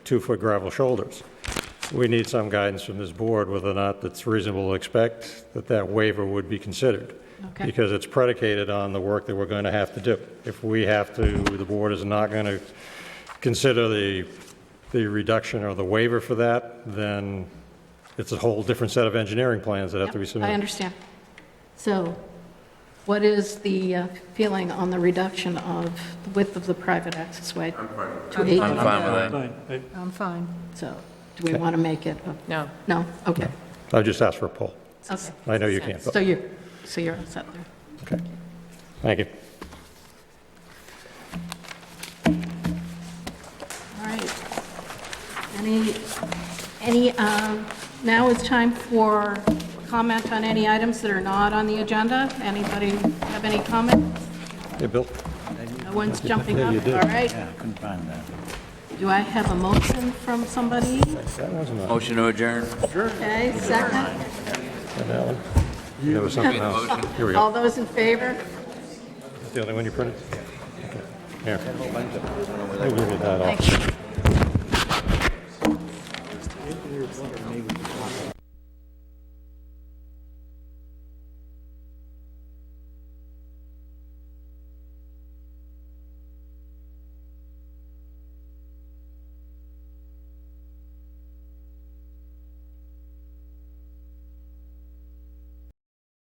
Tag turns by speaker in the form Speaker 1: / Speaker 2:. Speaker 1: two-foot gravel shoulders. We need some guidance from this board whether or not it's reasonable to expect that that waiver would be considered.
Speaker 2: Okay.
Speaker 1: Because it's predicated on the work that we're going to have to do. If we have to, the board is not going to consider the, the reduction or the waiver for that, then it's a whole different set of engineering plans that have to be
Speaker 2: I
Speaker 1: submitted.
Speaker 2: understand. So what is the uh, feeling on the reduction of the width of the private access way? To eight,
Speaker 3: I'm fine with that.
Speaker 4: Fine. I-
Speaker 5: I'm fine.
Speaker 2: so do we want to make it, a-
Speaker 3: No.
Speaker 2: no, okay,
Speaker 1: I just asked for a poll.
Speaker 2: okay.
Speaker 1: I know you can't,
Speaker 2: So
Speaker 1: but,
Speaker 2: you're, so you're all set there.
Speaker 1: okay. Thank you.
Speaker 2: All right. Any, any, um, now it's time for comment on any items that are not on the agenda. Anybody have any comments?
Speaker 1: Hey, Bill?
Speaker 2: No one's jumping up, all right?
Speaker 6: Yeah, I couldn't find that.
Speaker 2: Do I have a motion from somebody?
Speaker 1: That wasn't on,
Speaker 3: Motion to adjourn.
Speaker 2: Okay, second?
Speaker 1: that one. That was something else. Here we go.
Speaker 2: All those in favor?
Speaker 1: The only one you printed? Okay. Here. We'll give you that also.
Speaker 2: Thank you.